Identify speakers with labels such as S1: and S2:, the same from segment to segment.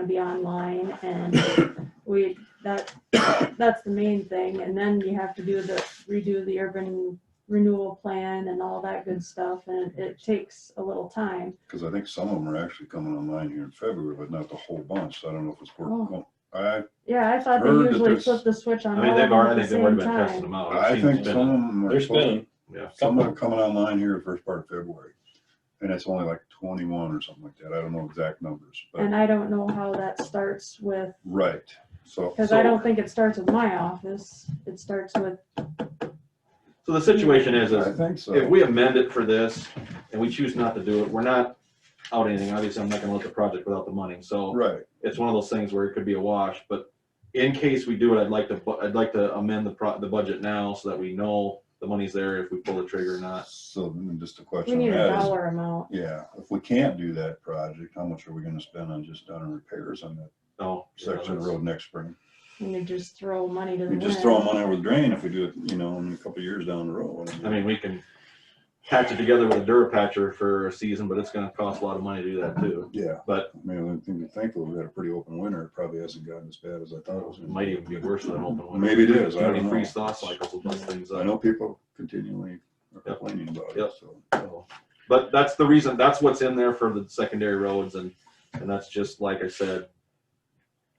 S1: gonna be online and we, that, that's the main thing. And then you have to do the, redo the urban renewal plan and all that good stuff and it takes a little time.
S2: Because I think some of them are actually coming online here in February, but not the whole bunch. So I don't know if it's
S1: Oh.
S2: working. I,
S1: Yeah, I thought they
S2: Heard that
S1: usually
S2: there's-
S1: flip the switch on
S3: I mean,
S1: all of
S3: they've
S1: them at
S3: already,
S1: the
S3: they've already
S1: same
S3: been testing
S1: time.
S3: them out. I've
S2: I
S3: seen
S2: think
S3: them.
S2: some of them are.
S3: There's
S2: supposed-
S3: been, yeah, a
S2: Some
S3: couple.
S2: are coming online here first part of February. And it's only like twenty-one or something like that. I don't know exact numbers, but,
S1: And I don't know how that starts with,
S2: right. So,
S1: cause I don't think it starts with my office. It starts with,
S3: So the situation is,
S2: I
S3: is
S2: think so.
S3: if we amend it for this and we choose not to do it, we're not out anything. Obviously, I'm not gonna let the project without the money. So
S2: Right,
S3: it's one of those things where it could be a wash, but in case we do it, I'd like to, bu- I'd like to amend the pro, the budget now so that we know the money's there if we pull the trigger or not.
S2: so then just a
S1: we
S2: question
S1: need
S2: of
S1: a
S2: that is,
S1: dollar amount.
S2: yeah, if we can't do that project, how much are we gonna spend on just done repairs on that
S3: No.
S2: section of road next spring?
S1: And you just throw money to the
S2: We
S1: wind.
S2: just throw them on over the drain if we do it, you know, in a couple of years down the road.
S3: I mean, we can patch it together with a Durapatcher for a season, but it's gonna cost a lot of money to do that too.
S2: Yeah.
S3: But-
S2: I mean, I think, thankfully, we had a pretty open winter. It probably hasn't gotten as bad as I thought it was.
S3: It
S2: gonna
S3: might even be worse than an open winter.
S2: Maybe it is, I
S3: Too many
S2: don't know.
S3: freeze thaw cycles will bust things
S2: I
S3: up.
S2: know people continually are complaining about it,
S3: Yep.
S2: so.
S3: So, But that's the reason, that's what's in there for the secondary roads and, and that's just, like I said,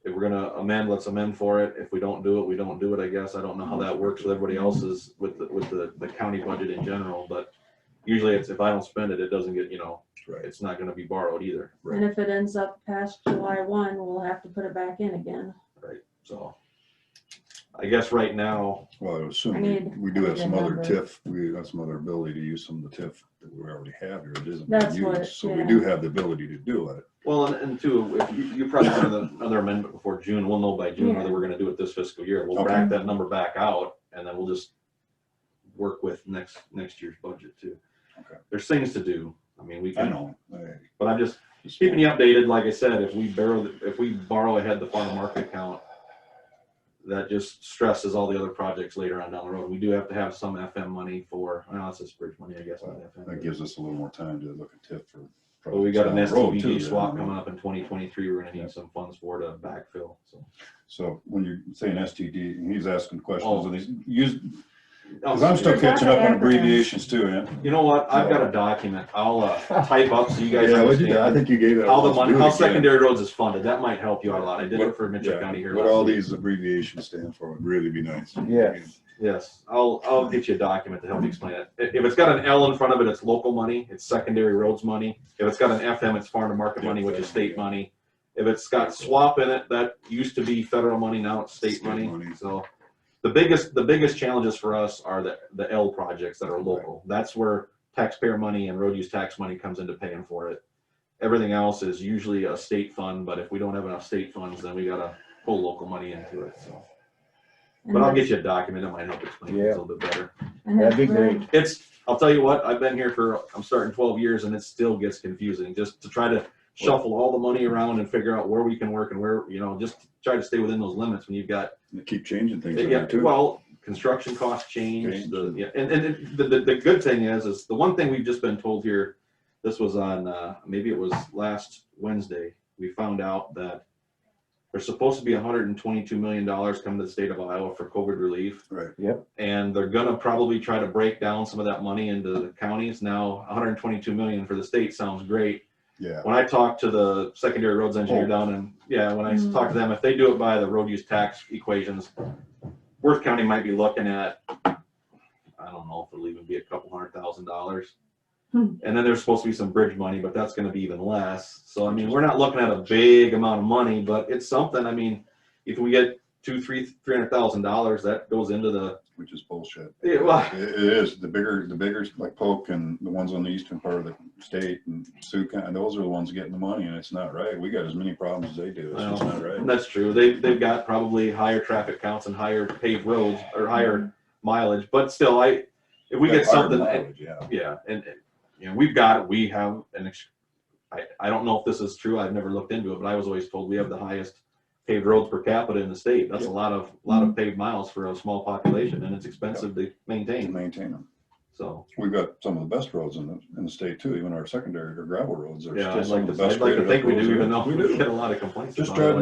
S3: if we're gonna amend, let's amend for it. If we don't do it, we don't do it, I guess. I don't know how that works with everybody else's, with, the- with the, the county budget in general, but usually it's, if I don't spend it, it doesn't get, you know,
S2: Right.
S3: it's not gonna be borrowed either,
S1: And if it ends up past July one, we'll have to put it back in again.
S3: so. I guess right now,
S2: Well, I
S1: I
S2: assume we-
S1: need-
S2: we
S1: I
S2: do
S1: need
S2: have
S1: a
S2: some other
S1: number.
S2: TIF, we have some other ability to use some of the TIF that we already have here. It isn't
S1: That's
S2: being
S1: what-
S2: used, so we
S1: yeah.
S2: do have the ability to do it.
S3: well, and, and two, if you, you probably have another- another amendment before June, we'll know by June whether we're gonna do it this fiscal year. We'll
S2: Okay.
S3: back that number back out and then we'll just work with next, next year's budget too.
S2: Okay.
S3: There's things to do. I mean, we
S2: I
S3: can,
S2: know. I-
S3: but I'm just
S2: it's-
S3: keeping you updated. Like I said, if we borrow, if we borrow ahead the farm market account, that just stresses all the other projects later on down the road. We do have to have some FM money for, I know it's this bridge money, I guess. not FM, but-
S2: That gives us a little more time to look at TIF for.
S3: But we got an
S2: projects down the road, too,
S3: STVG
S2: then, I
S3: swap
S2: mean.
S3: coming up in twenty twenty-three, we're gonna
S2: Yep.
S3: need some funds for to backfill, so.
S2: So when you're saying STD, and he's asking questions
S3: Oh.
S2: and he's used, because I'm still catching up on abbreviations too, yeah.
S3: You know what, I've got a document, I'll, uh, type up so you guys
S2: Yeah, what'd you do? I
S3: understand
S2: think you gave it.
S3: how the money, how
S2: Let's do it again.
S3: secondary roads is funded, that might help you out a lot, I did it for Mitchell
S2: Yeah,
S3: County here.
S2: What
S3: last
S2: all
S3: week.
S2: these abbreviations stand for would really be nice.
S4: Yes.
S3: Yes, I'll, I'll get you a document to help you explain it, I- if it's got an L in front of it, it's local money, it's secondary roads money, if it's got an FM, it's farm to market money, which is state money. If it's got swap in it, that used to be federal money, now it's state
S2: State
S3: money,
S2: money.
S3: so. The biggest, the biggest challenges for us are the, the L projects that are local, that's where taxpayer money and road use tax money comes into paying for it. Everything else is usually a state fund, but if we don't have enough state funds, then we gotta pull local money into it, so.
S1: And
S3: But I'll
S1: the-
S3: get you a document that might help explain it a
S4: Yeah.
S3: little bit better.
S1: and
S4: That'd be
S1: the-
S4: great.
S3: It's, I'll tell you what, I've been here for, I'm starting twelve years and it still gets confusing, just to try to shuffle all the money around and figure out where we can work and where, you know, just try to stay within those limits when you've got,
S2: They keep changing things.
S3: yeah,
S2: there, too.
S3: well, construction costs change, the,
S2: Change.
S3: yeah, and, and it- the, the, the good thing is, is the one thing we've just been told here, this was on, uh, maybe it was last Wednesday, we found out that there's supposed to be hundred and twenty-two million dollars coming to the state of Iowa for COVID relief.
S2: Right.
S3: And they're gonna probably try to break down some of that money into the counties. Now, hundred and twenty-two million for the state sounds great.
S2: Yeah.
S3: When I talked to the secondary roads engineer
S2: Oh.
S3: down in, yeah, when I
S1: Mm.
S3: talked to them, if they do it by the road use tax equations, Worth County might be looking at, I don't know if it'll even be a couple hundred thousand dollars.
S1: Hmm.
S3: And then there's supposed to be some bridge money, but that's gonna be even less. So I mean, we're not looking at a big amount of money, but it's something, I mean, if we get two, three, three hundred thousand dollars, that goes into the
S2: Which is bullshit.
S3: Yeah, well-
S2: It it is. The bigger, the bigger, like Polk and the ones on the eastern part of the state and Sioux County, those are the ones getting the money and it's not right. We got as many problems as they do. It's just not right.
S3: That's true. They, they've got probably higher traffic counts and higher paved roads or higher mileage, but still, I, if we get
S2: That's our
S3: something,
S2: mileage, Yeah.
S3: yeah, and, and, you know, we've got, we have an, ex- I, I don't know if this is true. I've never looked into it, but I was always told we have the highest paved roads per capita in the state.
S2: Mm-hmm.
S3: That's a lot of, lot of paved miles for a small population and it's expensive to
S2: To
S3: maintain.
S2: maintain them.
S3: So,
S2: We've got some of the best roads in the, in the state too, even our secondary or gravel roads are still
S3: yeah, I'd
S2: some
S3: like
S2: of the
S3: to,
S2: best.
S3: I'd like to
S2: graded up
S3: think we
S2: roads
S3: do,
S2: there.
S3: even though
S2: We
S3: we
S2: do.
S3: get a lot of complaints
S2: Just
S3: about it.
S2: drive